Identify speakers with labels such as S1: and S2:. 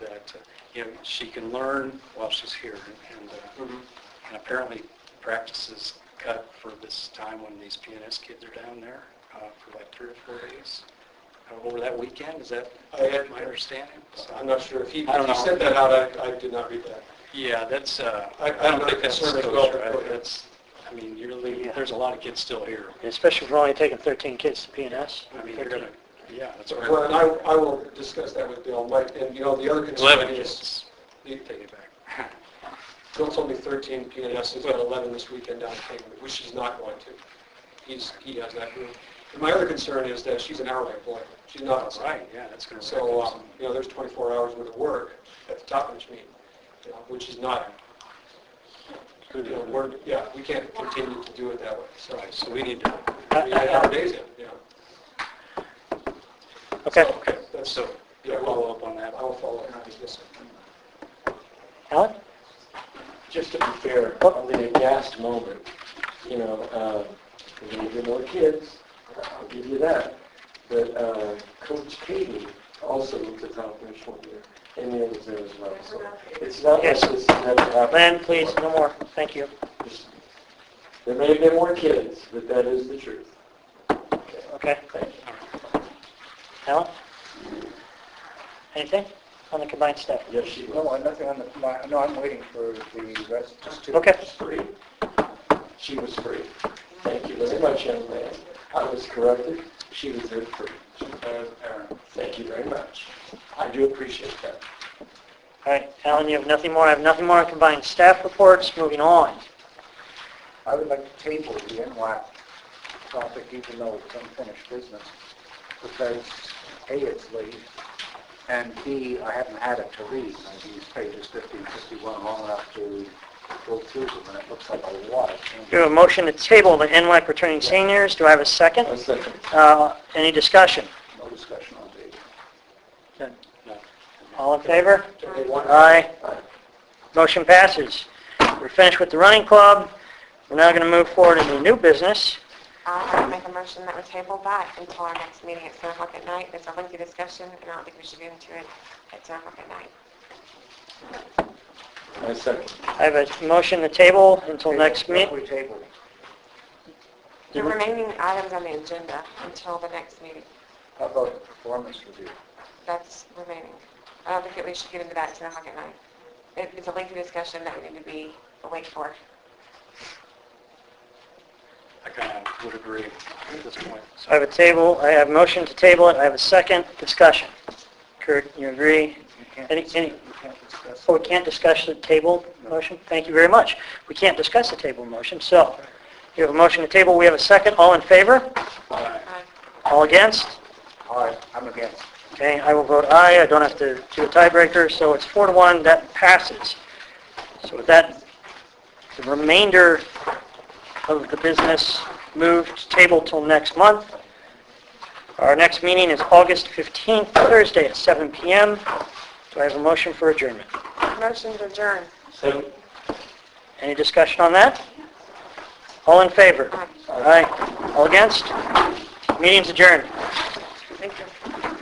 S1: that, uh, you know, she can learn while she's here and- and, uh,
S2: Mm-hmm.
S1: and apparently practice is cut for this time when these PNS kids are down there uh, for like three or four days uh, over that weekend. Is that
S2: I had-
S1: my understanding? So-
S2: I'm not sure if he,
S1: I don't
S2: he
S1: know.
S2: sent that out, I, I did not read that.
S1: Yeah, that's, uh,
S2: I-
S1: I
S2: I'm
S1: don't
S2: not
S1: think that's
S2: concerned as
S1: disclosure.
S2: well, but go
S1: I-
S2: ahead.
S1: That's, I mean, you're leaving,
S3: Yeah.
S1: there's a lot of kids still here.
S3: Especially if we're only taking 13 kids to PNS.
S1: I mean, you're gonna, yeah, that's. where-
S2: Well, and I, I will discuss that with Bill, Mike, and you know, the other concern
S1: Eleven
S2: is,
S1: kids.
S2: the-
S1: Take it back.
S2: Bill told me 13 PNS, he's got 11 this weekend down in Kingwood, which he's not going to. He's, he has that room. And my other concern is that she's an hourly employee, she's not
S1: That's
S2: outside.
S1: right, yeah, that's gonna.
S2: So, um, you know, there's 24 hours worth of work at the top of each meeting, you know, which is not, you know, we're, yeah, we can't continue to do it that way. So,
S1: Right, so we need to,
S2: I mean, our days, in, you know.
S3: Okay.
S1: okay,
S2: That's-
S1: so,
S2: Yeah,
S1: yeah,
S2: we'll-
S1: follow up on that.
S2: I will follow up. Yes, sir.
S3: Alan?
S4: Just to be fair, on the last moment, you know, uh, we're going to get more kids, I'll give you that. But uh, Coach Katie also looked at the operational year, and it was there as well. So it's not like
S3: Yes.
S4: this never happened.
S3: Len, please, no more. Thank you.
S4: There may have been more kids, but that is the truth.
S3: Okay.
S4: Thank you.
S3: Alan? Anything on the combined staff?
S4: Yes, she was.
S5: No, I'm nothing on the, my- no, I'm waiting for the rest, just two.
S3: Okay.
S4: free. She was free. Thank you very much, young man. I was corrected. She was there free. Thank you very much. I do appreciate that.
S3: All right, Alan, you have nothing more? I have nothing more on combined staff reports. Moving on.
S5: I would like to table the NWAC topic, even though it's unfinished business, because A, it's late, and B, I haven't had it to read. Now, These pages 50 and 51 are long enough to go through them, and it looks like a lot of changes.
S3: Do I have a motion to table the NWAC returning seniors. Do I have a
S4: A
S3: second?
S4: second.
S3: Uh, Any discussion?
S5: No discussion on table.
S3: None.
S1: No.
S3: All in favor?
S2: Okay, one-
S3: Aye. Motion passes. We're finished with the running club. We're now going to move forward into new business.
S6: I make a motion that we table that until our next meeting at 7 o'clock at night. There's a lengthy discussion, and I don't think we should get into it at 7 o'clock at night.
S4: A second.
S3: I have a motion to table until next
S5: Table,
S3: meeting.
S5: We table.
S6: The remaining items on the agenda until the next meeting,
S5: How about the performance review?
S6: that's remaining. I don't think that we should get into that at 7 o'clock at night. It- It's a lengthy discussion that we need to be awake for.
S1: I kind of would agree at this point.
S3: I have a table, I have a motion to table it, I have a second discussion. Kurt, you agree?
S5: You can't
S3: Any-
S5: discuss-
S3: any-
S5: You can't discuss.
S3: Oh, we can't discuss the table motion? Thank you very much. We can't discuss the table motion, so you have a motion to table, we have a second, all in favor?
S6: Aye.
S3: All against?
S5: All right, I'm against.
S3: Okay, I will vote aye. I don't have to do a tiebreaker, so it's four to one, that passes. So with that, the remainder of the business moved to table till next month. Our next meeting is August 15th, Thursday at 7 PM. Do I have a motion for adjournment?
S6: Motion to adjourn.
S4: So,
S3: Any discussion on that? All in favor?
S6: Aye.
S3: Aye. All against? Meeting's adjourned.